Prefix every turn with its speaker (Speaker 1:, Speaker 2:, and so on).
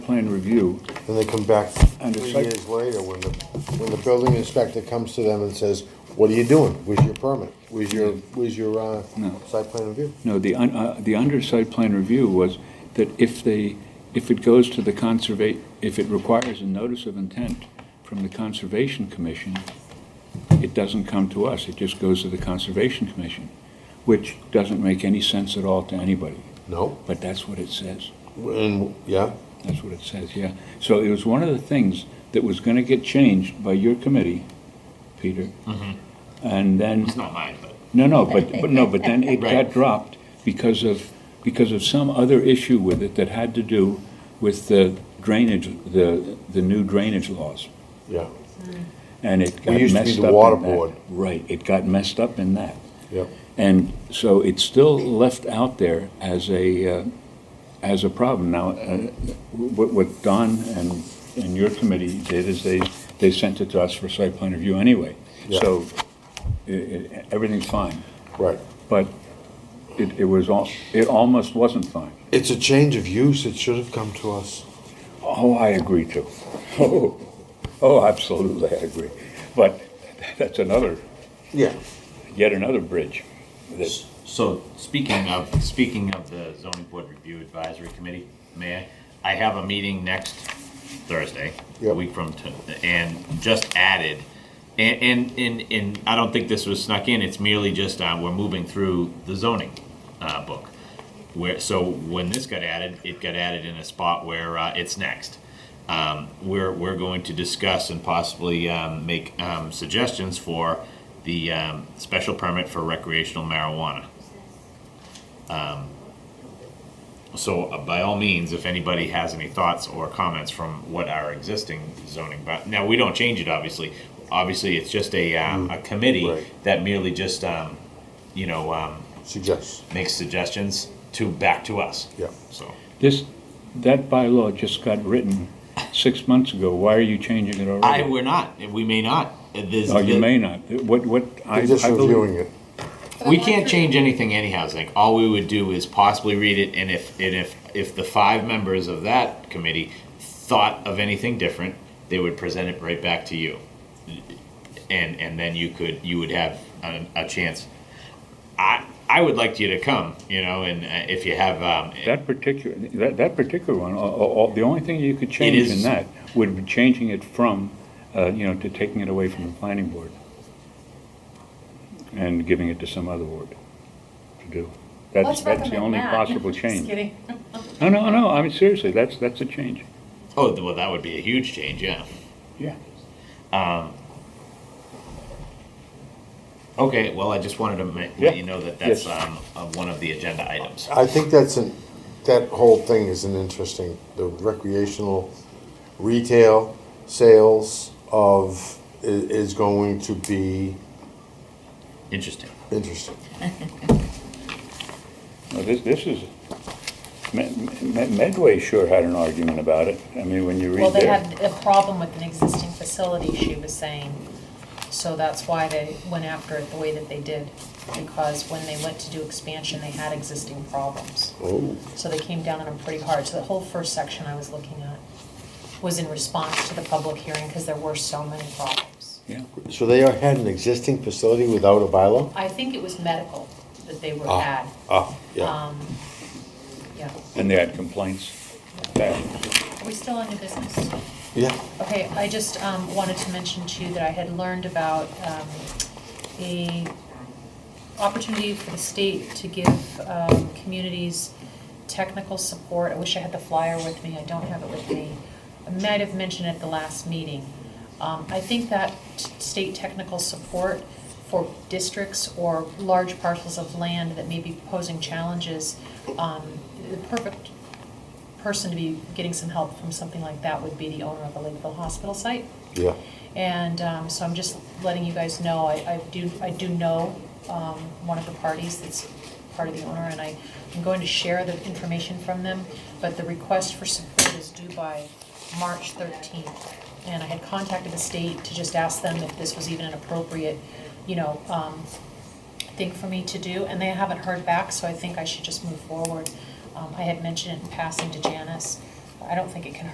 Speaker 1: plan review.
Speaker 2: Then they come back
Speaker 1: And
Speaker 2: three
Speaker 1: it's like-
Speaker 2: years later, when the, when the building inspector comes to them and says, what are you doing? Where's your permit? Where's your, where's your, uh,
Speaker 1: No.
Speaker 2: site plan review?
Speaker 1: No, the, un- uh, the under site plan review was that if they, if it goes to the conserva, if it requires a notice of intent from the Conservation Commission, it doesn't come to us, it just goes to the Conservation Commission, which doesn't make any sense at all to anybody,
Speaker 2: No,
Speaker 1: but that's what it says.
Speaker 2: and, yeah,
Speaker 1: That's what it says, yeah. So it was one of the things that was gonna get changed by your committee, Peter. And then.
Speaker 3: It's not mine, but
Speaker 1: No, no, but, but no, but then it got
Speaker 3: Right.
Speaker 1: dropped because of, because of some other issue with it that had to do with the drainage, the, the new drainage laws.
Speaker 2: yeah,
Speaker 1: And it got
Speaker 2: used
Speaker 1: messed up
Speaker 2: to be
Speaker 1: in
Speaker 2: the water
Speaker 1: that.
Speaker 2: board.
Speaker 1: Right, it got messed up in that.
Speaker 2: yeah.
Speaker 1: And so it's still left out there as a, uh, as a problem. Now, uh, what what Don and, and your committee did is they, they sent it to us for site plan review anyway.
Speaker 2: Yeah.
Speaker 1: So i- i- everything's fine,
Speaker 2: Right.
Speaker 1: but it, it was all, it almost wasn't fine.
Speaker 2: It's a change of use, it should have come to us.
Speaker 1: Oh, I agree too. Oh, oh, absolutely, I agree. But that's another,
Speaker 2: Yeah.
Speaker 1: yet another bridge. that-
Speaker 3: so speaking of speaking of the zoning board review advisory committee, may I? I have a meeting next Thursday, a
Speaker 2: Yep.
Speaker 3: week from to, and just added, and, and and and I don't think this was snuck in. It's merely just uh, we're moving through the zoning uh, book. Where so when this got added, it got added in a spot where uh, it's next. um, we're, we're going to discuss and possibly um, make um, suggestions for the um, special permit for recreational marijuana. Um, So uh, by all means, if anybody has any thoughts or comments from what our existing zoning, but now we don't change it, obviously. Obviously, it's just a, um,
Speaker 1: Mm,
Speaker 3: a committee
Speaker 2: right.
Speaker 3: that merely just, um, you know, um,
Speaker 2: Suggests,
Speaker 3: makes suggestions to, back to us.
Speaker 2: yeah.
Speaker 3: So,
Speaker 1: This, that bylaw just got written six months ago. Why are you changing it
Speaker 3: I,
Speaker 1: already?
Speaker 3: we're not, we may not. There's-
Speaker 1: Oh, you may not. What, what? I
Speaker 2: They're just
Speaker 1: I believe-
Speaker 2: reviewing it.
Speaker 3: We can't change anything anyhow, Zink. All we would do is possibly read it, and if, and if, if the five members of that committee thought of anything different, they would present it right back to you. And, and then you could, you would have a, a chance. I, I would like you to come, you know, and uh, if you have, um,
Speaker 1: That particular, that, that particular one, all- all- all- the only thing you could change in
Speaker 3: is-
Speaker 1: that would be changing it from, uh, you know, to taking it away from the planning board and giving it to some other board to do. That's,
Speaker 4: Let's
Speaker 1: that's the
Speaker 4: recommend
Speaker 1: only
Speaker 4: that.
Speaker 1: possible
Speaker 4: Just
Speaker 1: change.
Speaker 4: kidding.
Speaker 1: No, no, no, I mean, seriously, that's, that's a change.
Speaker 3: oh, well, that would be a huge change, yeah.
Speaker 1: Yeah.
Speaker 3: Okay, well, I just wanted to ma-
Speaker 1: Yeah.
Speaker 3: let you know that that's,
Speaker 1: Yes.
Speaker 3: um, uh, one of the agenda items.
Speaker 2: I think that's an, that whole thing is an interesting, the recreational retail sales of, i- is going to be
Speaker 3: Interesting.
Speaker 2: interesting.
Speaker 1: Well, this, this is, Med- Med- Medway sure had an argument about it. I mean, when you
Speaker 4: Well,
Speaker 1: read
Speaker 4: they
Speaker 1: their,
Speaker 4: had a problem with an existing facility, she was saying. So that's why they went after it the way that they did. Because when they went to do expansion, they had existing problems.
Speaker 2: Oh.
Speaker 4: So they came down on them pretty hard. So the whole first section I was looking at was in response to the public hearing because there were so many problems.
Speaker 1: yeah,
Speaker 2: So they are- had an existing facility without a bylaw?
Speaker 4: I think it was medical that they were
Speaker 2: Ah.
Speaker 4: had.
Speaker 2: Ah, yeah.
Speaker 4: Um, Yeah.
Speaker 1: and they had complaints. That-
Speaker 4: Are we still on new business?
Speaker 2: Yeah.
Speaker 4: Okay, I just um, wanted to mention to you that I had learned about um, the opportunity for the state to give um, communities technical support. I wish I had the flyer with me, I don't have it with me. I might have mentioned it at the last meeting. Um, I think that t- state technical support for districts or large parcels of land that may be posing challenges, um, the perfect person to be getting some help from something like that would be the owner of a Lakeville hospital site.
Speaker 2: Yeah.
Speaker 4: And um, so I'm just letting you guys know, I, I do, I do know um, one of the parties that's part of the owner, and I am going to share the information from them, but the request for support is due by March 13th. And I had contacted the state to just ask them if this was even an appropriate, you know, um, thing for me to do, and they haven't heard back, so I think I should just move forward. Um, I had mentioned it in passing to Janice, I don't think it can